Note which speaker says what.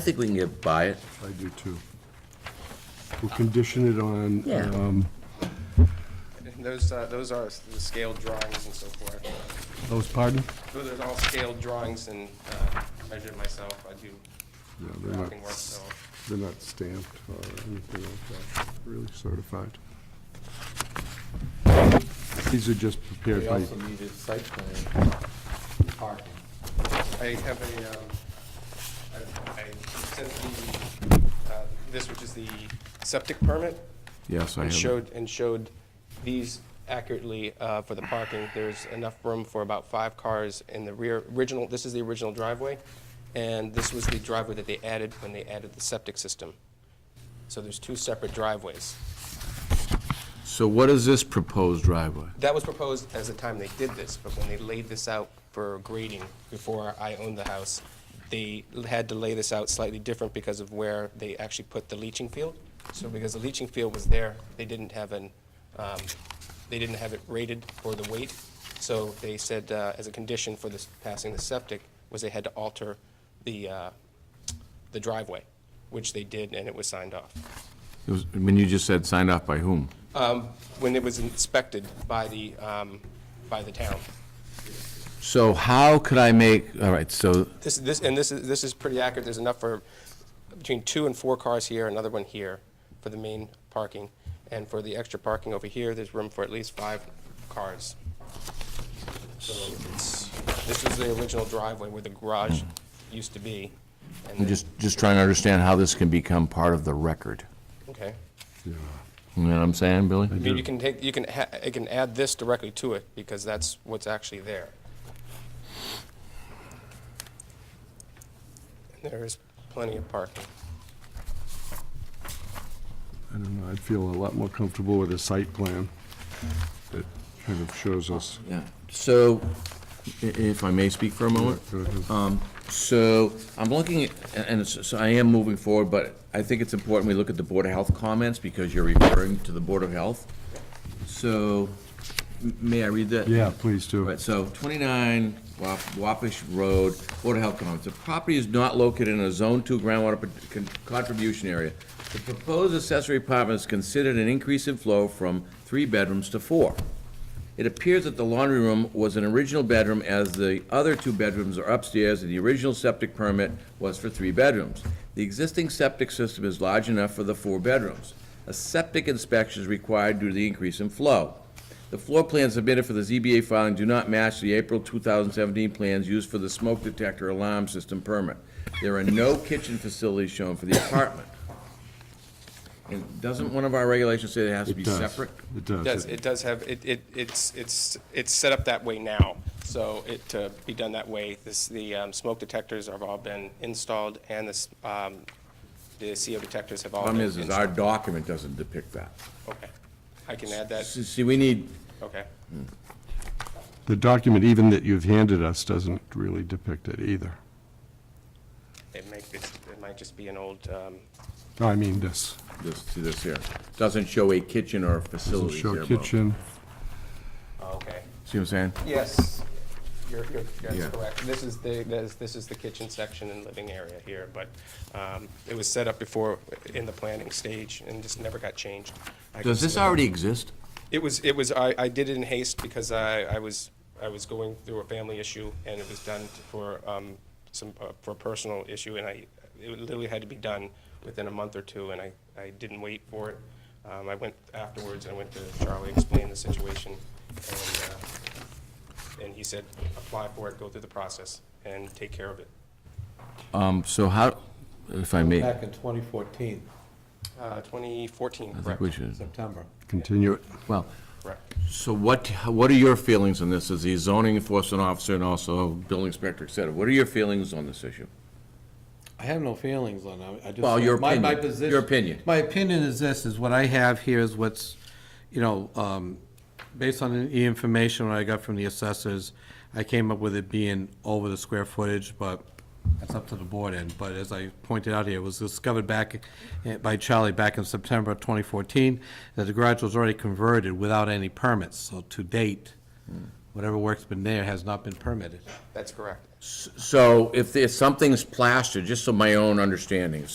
Speaker 1: I think we can get by it.
Speaker 2: I do too. We'll condition it on,
Speaker 1: Yeah.
Speaker 2: um,
Speaker 3: And those, uh, those are the scaled drawings and so forth.
Speaker 2: those, pardon?
Speaker 3: Those are all scaled drawings and, uh, measured myself, I do
Speaker 2: Yeah, they're not,
Speaker 3: mapping work, so.
Speaker 2: they're not stamped or anything like that, really certified. These are just prepared
Speaker 4: We
Speaker 2: by,
Speaker 4: also needed site plan for parking.
Speaker 3: I have a, um, I- I sent the, uh, this, which is the septic permit.
Speaker 5: Yes, I
Speaker 3: And
Speaker 5: have. it.
Speaker 3: showed, and showed these accurately uh, for the parking. There's enough room for about five cars in the rear, original, this is the original driveway, and this was the driveway that they added when they added the septic system. So there's two separate driveways.
Speaker 5: So what is this proposed driveway?
Speaker 3: That was proposed as the time they did this, but when they laid this out for grading before I owned the house, they had to lay this out slightly different because of where they actually put the leaching field. So because the leaching field was there, they didn't have an, um, they didn't have it rated for the weight. So they said, uh, as a condition for this, passing the septic, was they had to alter the, uh, the driveway, which they did, and it was signed off.
Speaker 5: It was- I mean, you just said signed off by whom?
Speaker 3: When it was inspected by the, um, by the town.
Speaker 5: So how could I make, all right, so,
Speaker 3: This, this, and this is, this is pretty accurate, there's enough for between two and four cars here, another one here for the main parking. And for the extra parking over here, there's room for at least five cars. So it's, this is the original driveway where the garage used to be. and
Speaker 5: I'm
Speaker 3: then-
Speaker 5: just, just trying to understand how this can become part of the record.
Speaker 3: Okay.
Speaker 2: yeah,
Speaker 5: You know what I'm saying, Billy?
Speaker 3: I mean, you can take, you can, ha- you can add this directly to it because that's what's actually there. And There is plenty of parking.
Speaker 2: I don't know, I'd feel a lot more comfortable with a site plan that kind of shows us.
Speaker 5: Yeah. So, i- if I may speak for a moment?
Speaker 2: Go ahead.
Speaker 5: So I'm looking, at and it's- so I am moving forward, but I think it's important we look at the Board of Health comments because you're referring to the Board of Health. So, m- may I read that?
Speaker 2: Yeah, please do.
Speaker 5: All right, so 29 Wap- Wapish Road, Board of Health comments. The property is not located in a Zone 2 groundwater pro- con- contribution area. The proposed accessory apartment is considered an increase in flow from three bedrooms to four. It appears that the laundry room was an original bedroom as the other two bedrooms are upstairs and the original septic permit was for three bedrooms. The existing septic system is large enough for the four bedrooms. A septic inspection is required due to the increase in flow. The floor plans submitted for the ZBA filing do not match the April 2017 plans used for the smoke detector alarm system permit. There are no kitchen facilities shown for the apartment. And doesn't one of our regulations say it has to be
Speaker 2: It does.
Speaker 5: separate?
Speaker 2: It does.
Speaker 3: Does, it does have, it, it, it's, it's, it's set up that way now, so it, to be done that way, this, the, um, smoke detectors have all been installed, and this, um, the CO detectors have all been
Speaker 5: Problem is,
Speaker 3: installed.
Speaker 5: is our document doesn't depict that.
Speaker 3: Okay, I can add that,
Speaker 5: See, see, we need,
Speaker 3: okay,
Speaker 2: The document even that you've handed us doesn't really depict it either.
Speaker 3: it may, it's- it might just be an old, um,
Speaker 2: No, I mean this.
Speaker 5: this, see this here, doesn't show a kitchen or
Speaker 2: Doesn't
Speaker 5: facilities here.
Speaker 2: show
Speaker 5: Bob.
Speaker 2: kitchen.
Speaker 3: oh, okay.
Speaker 5: See what I'm saying?
Speaker 3: Yes, you're, you're,
Speaker 5: Yeah.
Speaker 3: that's correct. This is the, this, this is the kitchen section and living area here, but, um, it was set up before in the planning stage and just never got changed. I can
Speaker 5: Does this
Speaker 3: see-
Speaker 5: already exist?
Speaker 3: It was, it was, I, I did it in haste because I, I was, I was going through a family issue and it was done for, um, some, uh, for a personal issue and I, it literally had to be done within a month or two and I, I didn't wait for it. Um, I went afterwards, I went to Charlie, explained the situation and, uh, and he said, apply for it, go through the process and take care of it.
Speaker 5: Um, so how, if I may, I
Speaker 4: Back in 2014,
Speaker 3: Uh, twenty fourteen,
Speaker 5: think
Speaker 3: correct?
Speaker 5: we should,
Speaker 4: September.
Speaker 2: Continue it.
Speaker 5: well,
Speaker 3: Correct.
Speaker 5: so what, what are your feelings on this, as the zoning enforcement officer and also building inspector, et cetera? What are your feelings on this issue?
Speaker 4: I have no feelings on it. I just.
Speaker 5: Well, your
Speaker 4: my- my
Speaker 5: opinion.
Speaker 4: position-
Speaker 5: Your opinion.
Speaker 4: My opinion is this, is what I have here is what's, you know, um, based on the information I got from the assessors, I came up with it being over the square footage, but that's up to the board end. But as I pointed out here, it was discovered back, eh, by Charlie back in September of
Speaker 5: Hmm.
Speaker 4: 2014, that the garage was already converted without any permits. So to date, whatever work's been there has not been permitted.
Speaker 3: That's correct.
Speaker 5: So if there's, something's plastered, just so my own understanding,